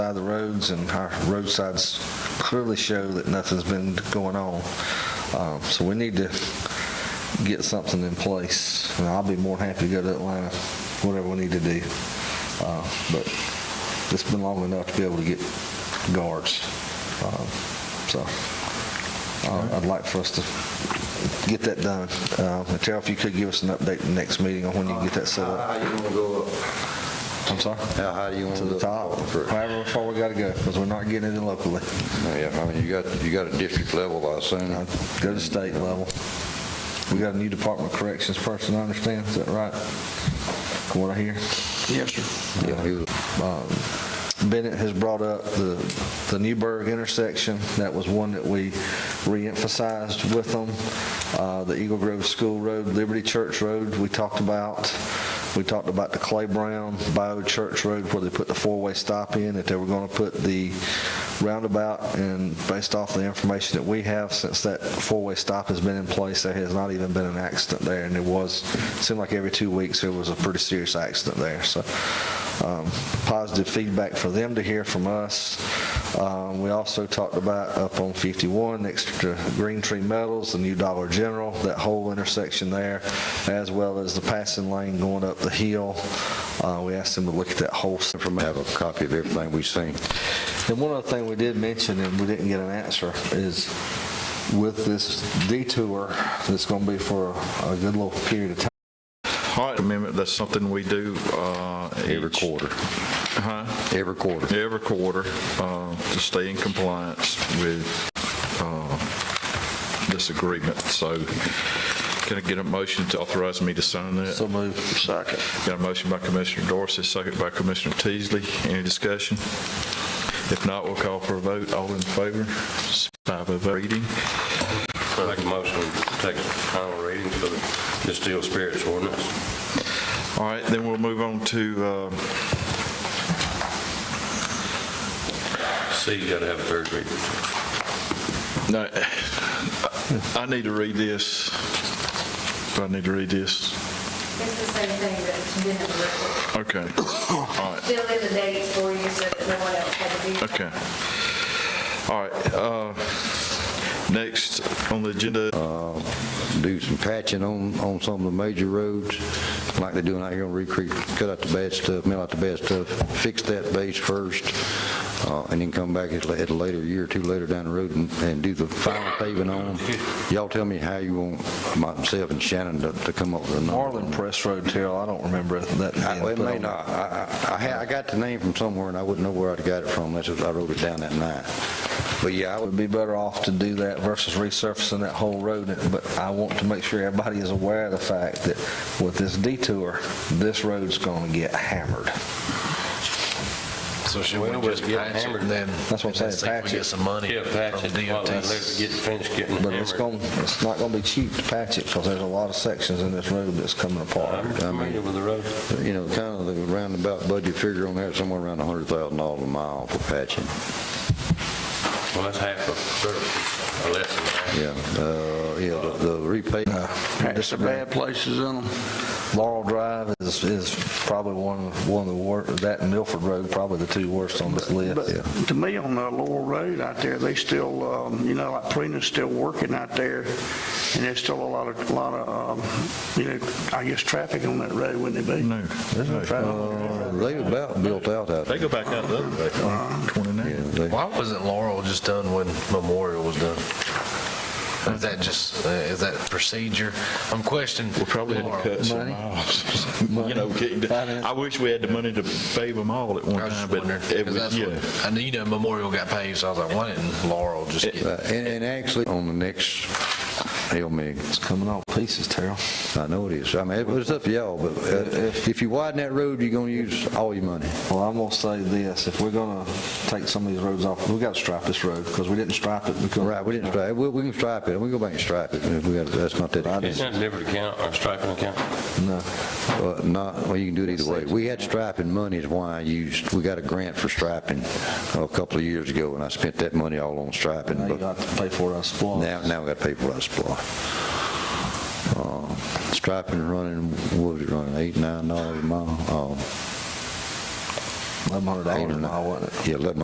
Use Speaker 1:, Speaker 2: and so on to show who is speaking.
Speaker 1: by the roads, and our roadsides clearly show that nothing's been going on. Um, So we need to get something in place, and I'll be more than happy to go to Atlanta, whatever we need to do. Uh, But it's been long enough to be able to get guards. Um, So uh, I'd like for us to get that done. Uh, and Terrell, if you could give us an update the next meeting on when you can get that set
Speaker 2: How
Speaker 1: up.
Speaker 2: high you wanna go up?
Speaker 1: I'm sorry?
Speaker 2: How high do you wanna
Speaker 1: Uh, To
Speaker 2: go?
Speaker 1: the top, however far we gotta go, because we're not getting it locally.
Speaker 2: Yeah, I mean, you got, you got a district level, I assume.
Speaker 1: Now, Go to state level. We got a new Department of Corrections person, I understand, is that right? From What I hear?
Speaker 3: Yes, sir.
Speaker 2: Yeah, he was-
Speaker 1: Bennett has brought up the, the Newburgh intersection. That was one that we reemphasized with them. Uh, The Eagle Grove School Road, Liberty Church Road, we talked about. We talked about the Clay Brown Bio Church Road where they put the four-way stop in, that they were going to put the roundabout. And based off the information that we have, since that four-way stop has been in place, there has not even been an accident there. And it was, seemed like every two weeks, there was a pretty serious accident there. So um, positive feedback for them to hear from us. Um, We also talked about up on 51, next to Green Tree Metals, the new Dollar General, that whole intersection there, as well as the passing lane going up the hill. Uh, We asked them to look at that whole s-
Speaker 2: from, have a copy of everything we seen.
Speaker 1: and one other thing we did mention, and we didn't get an answer, is with this detour that's going to be for a good little period of time.
Speaker 4: Height amendment, that's something we do. uh,
Speaker 2: Every
Speaker 4: each-
Speaker 2: quarter. Huh? Every quarter.
Speaker 4: Every quarter, uh, to stay in compliance with uh, this agreement. So can I get a motion to authorize me to sign that?
Speaker 1: So move.
Speaker 3: Second.
Speaker 4: Got a motion by Commissioner Dorsey, second by Commissioner Teasley. Any discussion? If not, we'll call for a vote. All in favor? It's Five of reading.
Speaker 5: I make a motion to take a final reading for the distilled spirits ordinance.
Speaker 4: All right, then we'll move on to uh,
Speaker 5: C, you gotta have a third reading.
Speaker 4: No, I need to read this. Do I need to read this?
Speaker 6: It's the same thing, but it's been in the record.
Speaker 4: Okay, all right,
Speaker 6: Fill in the dates for you so that no one else had to do.
Speaker 4: okay. All right, uh, next on the agenda, uh,
Speaker 2: Do some patching on, on some of the major roads, like they're doing out here on Reed Creek. Cut out the bad stuff, mill out the bad stuff, fix that base first, uh, and then come back at la- at a later, year or two later down the road and, and do the final paving on them. Y'all tell me how you want myself and Shannon to, to come up with a number.
Speaker 1: Marlin Press Road, Terrell, I don't remember that. being
Speaker 2: I- well, Uh, It
Speaker 1: put
Speaker 2: may
Speaker 1: on.
Speaker 2: not. I, I- I, had- I got the name from somewhere, and I wouldn't know where I'd got it from unless I wrote it down that night. But yeah, I
Speaker 1: We'd
Speaker 2: would,
Speaker 1: be better off to do that versus resurfacing that whole road, but I want to make sure everybody is aware of the fact that with this detour, this road's gonna get hammered.
Speaker 7: So should we just patch it then?
Speaker 1: That's what I'm saying,
Speaker 7: and see if
Speaker 1: patch
Speaker 7: we
Speaker 1: it.
Speaker 7: get some money
Speaker 5: Yeah, patch
Speaker 7: from
Speaker 5: it, while they let it get
Speaker 7: DOT.
Speaker 5: finished getting
Speaker 1: But it's
Speaker 5: hammered.
Speaker 1: gonna, it's not gonna be cheap to patch it, because there's a lot of sections in this road that's coming apart.
Speaker 5: I'm familiar with the road.
Speaker 2: you know, kind of the roundabout budget figure on there, somewhere around $100,000 a mile for patching.
Speaker 5: Well, that's half of, third, or less than half.
Speaker 2: Yeah, uh, yeah, the- the repay,
Speaker 3: Patch the bad places in them.
Speaker 1: Laurel Drive is, is probably one, of- one of the worst, that and Milford Road, probably the two worst on this list.
Speaker 3: But to me, on the Laurel Road out there, they still, um, you know, like Prina's still working out there, and there's still a lot of, lot of, um, you know, I guess, traffic on that road, wouldn't it be?
Speaker 4: no. no.
Speaker 2: they about built out out
Speaker 4: They
Speaker 2: there.
Speaker 4: go back out the other way, 29.
Speaker 2: Yeah, they-
Speaker 7: Why wasn't Laurel just done when Memorial was done? Is that just, uh, is that procedure? I'm questioning.
Speaker 4: We'll probably have to
Speaker 7: Laurel.
Speaker 4: cut some
Speaker 1: Money.
Speaker 4: miles. You know, getting to-
Speaker 1: Finance.
Speaker 4: I wish we had the money to pave them all at one
Speaker 7: I was
Speaker 4: time,
Speaker 7: just
Speaker 4: but
Speaker 7: wondering,
Speaker 4: it
Speaker 7: 'cause
Speaker 4: was,
Speaker 7: that's
Speaker 4: yeah.
Speaker 7: what, I knew, you know, Memorial got paved, so I was like, why didn't Laurel just get?
Speaker 2: Uh, And, and actually, on the next, hell, me,
Speaker 1: It's coming all pieces, Terrell.
Speaker 2: I know it is. I mean, it was up to y'all, but uh, if you widen that road, you're going to use all your money.
Speaker 1: Well, I'm gonna say this, if we're gonna take some of these roads off, we gotta stripe this road, because we didn't stripe it because.
Speaker 2: Right, we didn't stripe, we, we can stripe it, we can go back and stripe it, if we got, that's not that.
Speaker 5: It's not different account, or striping account.
Speaker 1: No.
Speaker 2: Uh, Not, well, you can do it either way. We had striping money is why I used, we got a grant for striping oh, a couple of years ago, and I spent that money all on striping,
Speaker 1: Now you
Speaker 2: but
Speaker 1: got to pay for it out of splot.
Speaker 2: now, now we got to pay for that supply. Uh, Striping running, what was it running, eight, nine dollars a mile? Oh,
Speaker 1: $1,100
Speaker 2: Eight or
Speaker 1: a
Speaker 2: nine.
Speaker 1: mile, wasn't it?
Speaker 2: Yeah, eleven